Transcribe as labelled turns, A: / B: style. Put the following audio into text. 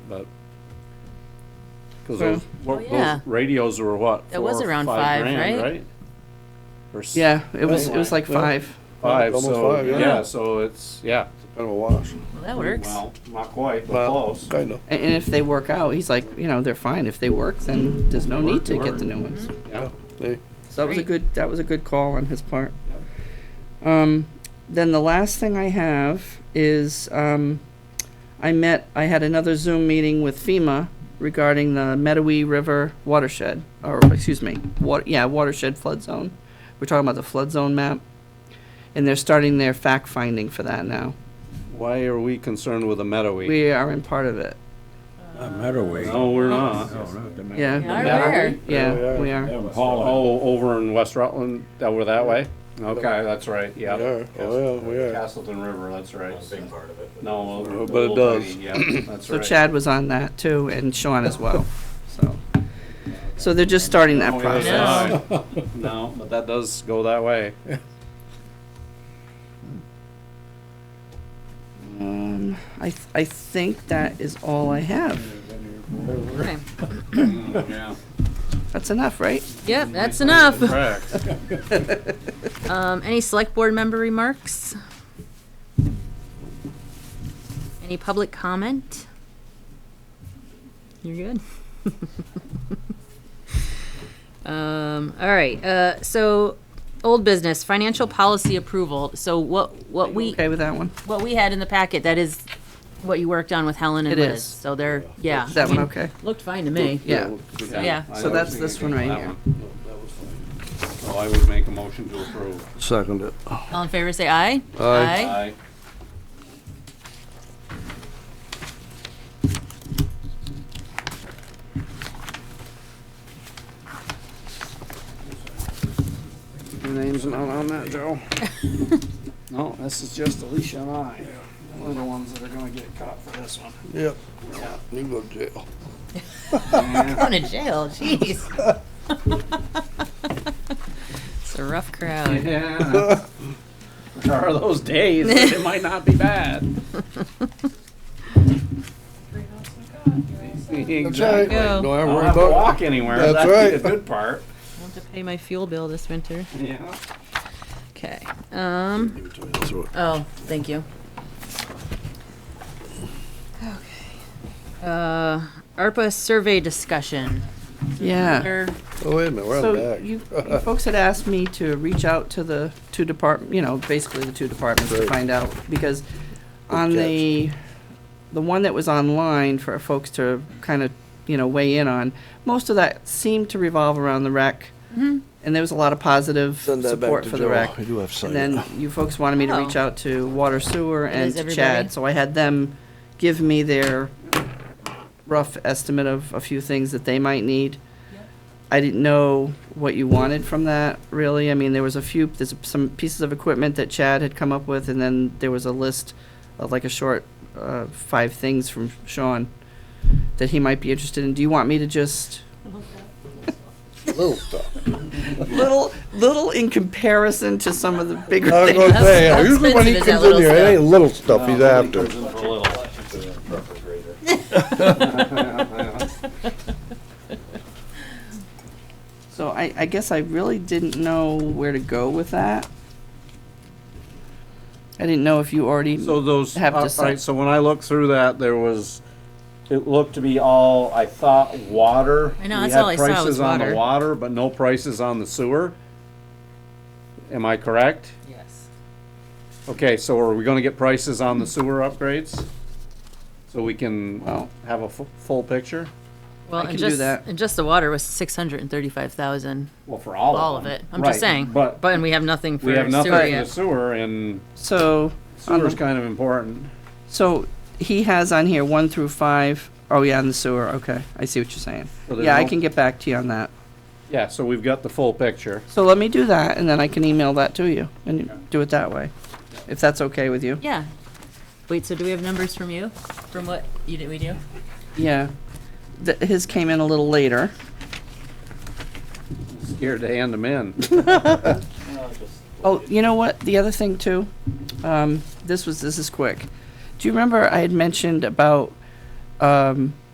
A: but. Cause
B: Well-
A: those, what-
C: Oh, yeah.
A: those radios were what?
C: That was
A: four or
C: around five,
A: grand,
C: right?
A: Or s-
B: Yeah, it was, it was like
D: Yeah.
B: five.
A: Five,
D: Almost
A: so,
D: five, yeah.
A: yeah, so it's, yeah.
D: Kind of a wash.
C: Well, that works.
A: Well, not quite, but
D: Well,
A: close.
D: kind of.
B: A- And if they work out, he's like, you know, they're fine. If they work, then there's no need to get the new ones.
A: Yeah.
D: They,
B: So that was a
C: Great.
B: good, that was a good call on his part. Um, then the last thing I have is, um, I met, I had another Zoom meeting with FEMA regarding the Medowee River watershed, or, excuse me, wa- yeah, watershed flood zone. We're talking about the flood zone map, and they're starting their fact finding for that now.
A: Why are we concerned with a meadowy?
B: We are in part of it,
E: Meadowee.
A: No, we're not.
B: yeah.
C: Yeah,
A: Yeah.
C: where?
B: Yeah, we are.
A: Oh, over in West Rutland, over that way? Okay, that's right,
D: we
A: yeah.
D: are, oh, yeah, we are.
A: Castleton River, that's right.
F: big part of it.
A: No, a- a
D: But it
A: little
D: does.
A: tiny, Yeah, that's
B: So
A: right.
B: Chad was on that too, and Sean as well, so. So they're just starting
A: Oh,
B: that
A: yeah,
B: process.
A: sorry. No, but that does go that way.
B: Um, I, th- I think that is all I have.
C: Okay.
A: Yeah.
B: That's enough, right?
C: Yep, that's enough.
A: Correct.
C: Um, any select board member remarks? Any public comment? You're good? Um, all right, uh, so, old business, financial policy approval. So what, what we,
B: Okay with that one?
C: what we had in the packet, that is what you worked on with Helen and
B: It
C: Liz.
B: is.
C: So they're, yeah.
B: Is that one
C: I mean,
B: okay?
C: Looked fine to me.
B: Yeah.
C: Yeah.
A: I
B: So
A: don't
B: that's
A: see
B: this
A: anything
B: one
A: with
B: right
A: that one. So I would make a motion to approve.
D: Second it.
C: All in favor, say aye.
A: Aye.
C: Aye.
B: Your name's not on that, Joe.
A: No, this is just Alicia and I. We're the ones that are gonna get caught for this one.
D: Yep. You go to jail.
C: Going to jail, jeez. It's a rough crowd.
A: Yeah. There are those days, but it might not be bad. Exactly.
C: go.
D: No, I
A: I don't
D: worry
A: have to
D: about
A: walk anywhere.
D: That's
A: That'd be
D: right.
A: the good part.
C: I'll have to pay my fuel bill this winter.
A: Yeah.
C: Okay, um,
D: it.
C: oh, thank you. Okay. Uh, ARPA survey discussion.
B: Yeah.
C: Under-
D: Oh, wait a minute, we're
B: So
D: on
B: you,
D: the
B: you folks had asked me to reach out to the two depart, you know, basically the two departments to
D: Right.
B: find out, because on the, the one that was online for folks to kind of, you know, weigh in on, most of that seemed to revolve around the rec. And there was a lot of positive
D: Send that back
B: support
D: to
B: for the
D: Joe.
B: rec.
D: I do have
B: And
D: signed.
B: then you folks wanted me to reach
C: Oh.
B: out to Water Sewer and
C: is
B: to
C: everybody.
B: Chad, so I had them give me their rough estimate of a few things that they might need. I didn't know what you wanted from that, really. I mean, there was a few, there's some pieces of equipment that Chad had come up with, and then there was a list of like a short, uh, five things from Sean that he might be interested in. Do you want me to just?
D: Little stuff.
B: Little, little in comparison to some of the bigger
D: I was
B: things.
D: gonna say,
C: That's-
D: usually when he
C: expensive, is that
D: comes in here,
C: little
D: it ain't little stuff he's
A: Nobody
D: after.
A: comes in for little.
B: So I, I guess I really didn't know where to go with that. I didn't know if you already,
A: So those,
B: have to
A: all
B: set-
A: right, so when I looked through that, there was, it looked to be all, I thought, water.
C: I know,
A: We
C: that's
A: had
C: all I saw was
A: Prices on the
C: water.
A: water, but no prices on the sewer. Am I correct?
C: Yes.
A: Okay, so are we gonna get prices on the sewer upgrades? So we can
B: well,
A: have a fu- full picture?
C: Well,
B: I
C: and
B: can do
C: just,
B: that.
C: and just the water was six hundred and thirty-five thousand,
A: Well, for all
C: all
A: of
C: of
A: them.
C: it. I'm just
A: Right,
C: saying, but,
A: But
C: and we have nothing for
A: we have nothing
C: sewer
A: for the
C: yet.
A: sewer and
B: so, on
A: sewer's
B: the,
A: kind of important.
B: so he has on here one through five. Oh yeah, on the sewer, okay, I see what you're saying.
A: So there's
B: Yeah, I
A: no-
B: can get back to you on that.
A: Yeah, so we've got the full picture.
B: So let me do that and then I can email that to you and do it that way, if that's okay with you.
C: Yeah. Wait, so do we have numbers from you, from what you did, we do?
B: Yeah. Th- His came in a little later.
A: Scared to hand them in.
B: Oh, you know what? The other thing too, um, this was this is quick. Do you remember I had mentioned about um,